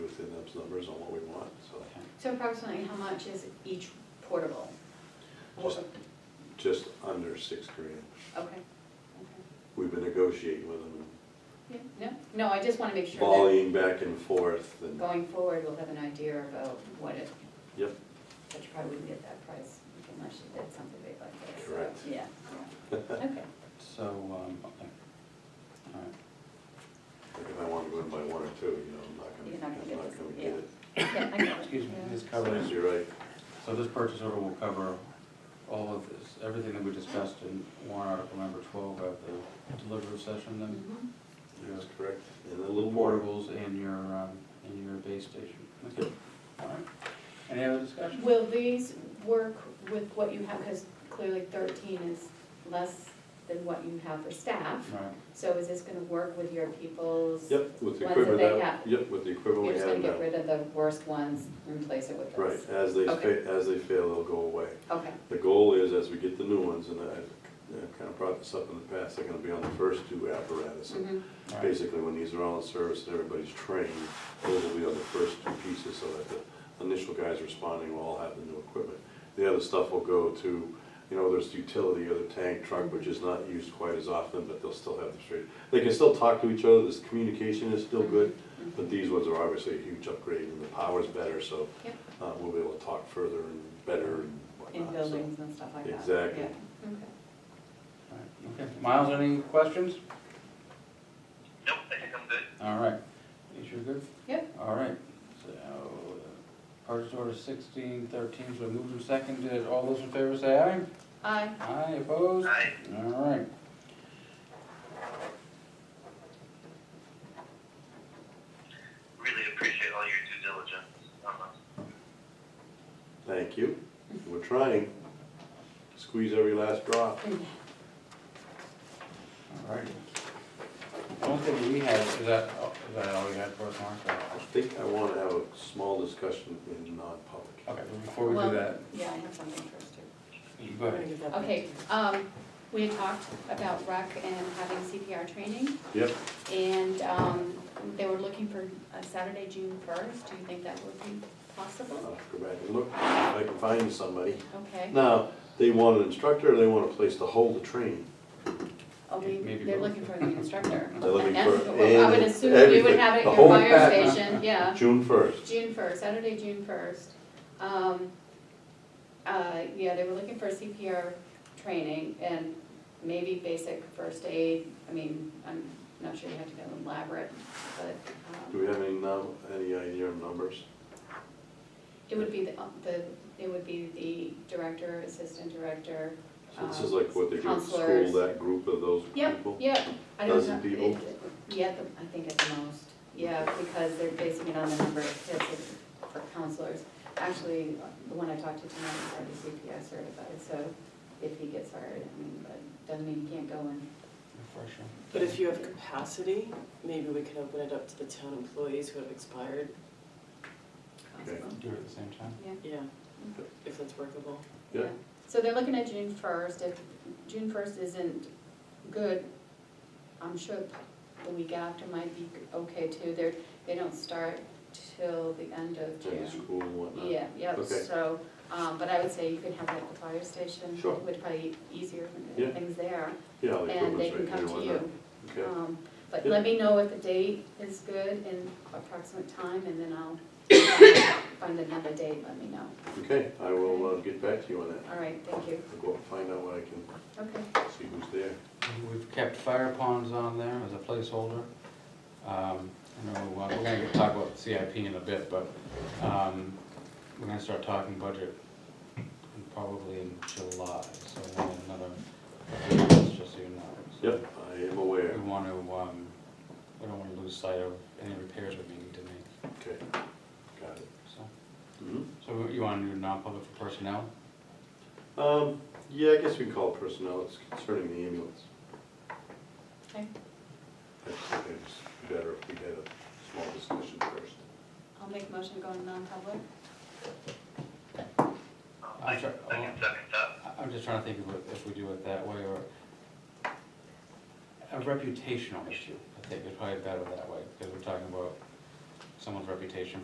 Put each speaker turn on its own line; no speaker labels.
those numbers on what we want, so.
So approximately how much is each portable?
Just, just under six grand.
Okay, okay.
We've been negotiating with them,
Yeah, no, no, I just wanna make sure
volleying back and forth
that
and,
going forward, we'll have an idea about what it,
yep,
but you probably wouldn't get that price unless you did something big like this. so,
Correct.
Yeah, yeah. okay.
So, um, okay. All right.
like if I want to go in by one or two, you know, I'm not
You're
gonna,
not gonna
I'm
get
not
this,
gonna
yeah.
get it.
Yeah, I get it.
Excuse me,
Yeah.
this
So
covers,
You're right,
so this purchase order will cover all of this, everything that we discussed in warrant article number twelve of the deliberative session, then
Mhm.
your
that's correct, and a little more.
portables and your, um, and your base station. Okay.
Yep.
All right. Any other discussion?
Will these work with what you have, because clearly thirteen is less than what you have for staff.
All right.
So is this gonna work with your people's?
Yep, with the
Ones that
equipment
they
that,
have.
yep, with the
You're
equipment we
just gonna
have
get
now.
rid of the worst ones and replace it with
Right,
those?
as they,
Okay.
fa- as they fail, they'll go away.
Okay,
The goal is, as we get the new ones, and I've, I've kind of brought this up in the past, they're gonna be on the first two apparatuses.
mhm,
All right.
Basically, when these are all in service and everybody's trained, those will be on the first two pieces, so that the initial guys responding will all have the new equipment. The other stuff will go to, you know, there's utility or the tank truck, which is not used quite as often, but they'll still have the straight. They can still talk to each other, this communication is still good, but these ones are obviously a huge upgrade, and the power's better, so
Yep.
uh, we'll be able to talk further and better and
in
whatnot. so.
buildings and stuff like that.
Exactly.
Yeah, Okay.
All right. Okay. Miles, any questions?
Nope, I think I'm good.
All right. You sure good?
Yep.
All right, so, uh, purchase order sixteen thirteen, so moved and seconded, all those in favor say aye.
Aye.
Aye, opposed?
Aye.
All right.
Really appreciate all your due diligence Um, on us.
Thank you, we're trying, squeeze every last drop.
All right. I don't think we had, is that, oh, is that all you had for us, Mark?
I think I want to have a small discussion in non-public.
Okay, but before we do
Well,
that,
Yeah, I have something first too.
you go ahead.
Okay, um, we had talked about rec and having CPR training,
Yep,
and, um, they were looking for uh, Saturday, June first. Do you think that would be possible?
I'll Uh, go back and look, if I can find somebody.
Okay.
Now, they want an instructor, or they want a place to hold the training?
Oh, we,
Maybe
they're
both.
looking for the instructor.
They're looking
And-
for-
well, I would
and
assume you would
everything,
have it
the
at your
whole
fire
package.
station, yeah.
June first.
June first, Saturday, June first. Um, uh, yeah, they were looking for CPR training and maybe basic first aid. I mean, I'm not sure you have to go elaborate, but,
Do
um,
we have any num, any idea of numbers?
it would be the, the, it would be the director, assistant director.
So this
um,
is like what they do at school,
counselors.
that group of those
Yep,
people?
yep. I don't
Dozen
know.
people?
It- Yeah, the- I think at the most, yeah, because they're basing it on the number of kids that- for counselors. Actually, the one I talked to tonight is already CPI certified, so if he gets hired, I mean, but doesn't mean he can't go in.
Refresher.
But if you have capacity, maybe we can open it up to the town employees who have expired,
Okay.
Do it at the same time.
Yeah,
yeah, if that's workable.
Yeah.
yeah. So they're looking at June first, if June first isn't good, I'm sure the week after might be okay too. They're, they don't start till the end of June.
And the school and whatnot?
Yeah, yeah,
Okay.
so, um, but I would say you could have that at the fire station.
Sure.
Would probably be easier, when
Yeah.
things there,
Yeah, the
and they
equipment's right there
can come
and
to
whatnot. Okay,
you. Um, But
Yeah.
let me know if the date is good and approximate time, and then I'll uh, find another date, let me know.
okay, I will uh, get back to you on that.
All right, thank you.
I'll go up and find out what I can,
Okay,
see who's there.
We've kept fire ponds on there as a placeholder. Um, I know, uh, we're gonna talk about CIP in a bit, but, um, we're gonna start talking budget in- probably in July, so we'll have another, just so you know. So
Yep, I am aware,
We want to, um, we don't want to lose sight of any repairs we need to make,
okay, got it.
so.
Mhm.
So you want to do non-public for personnel?
Um, yeah, I guess we can call it personnel, it's concerning the ambulance.
Okay.
I think it's better if we had a small discussion first.
I'll make a motion going non-public.
Um,
I'm
I
sorry,
I can second that.
I- I'm just trying to think of it- if we do it that way or a reputational issue, I think is probably better that way, because we're talking about someone's reputation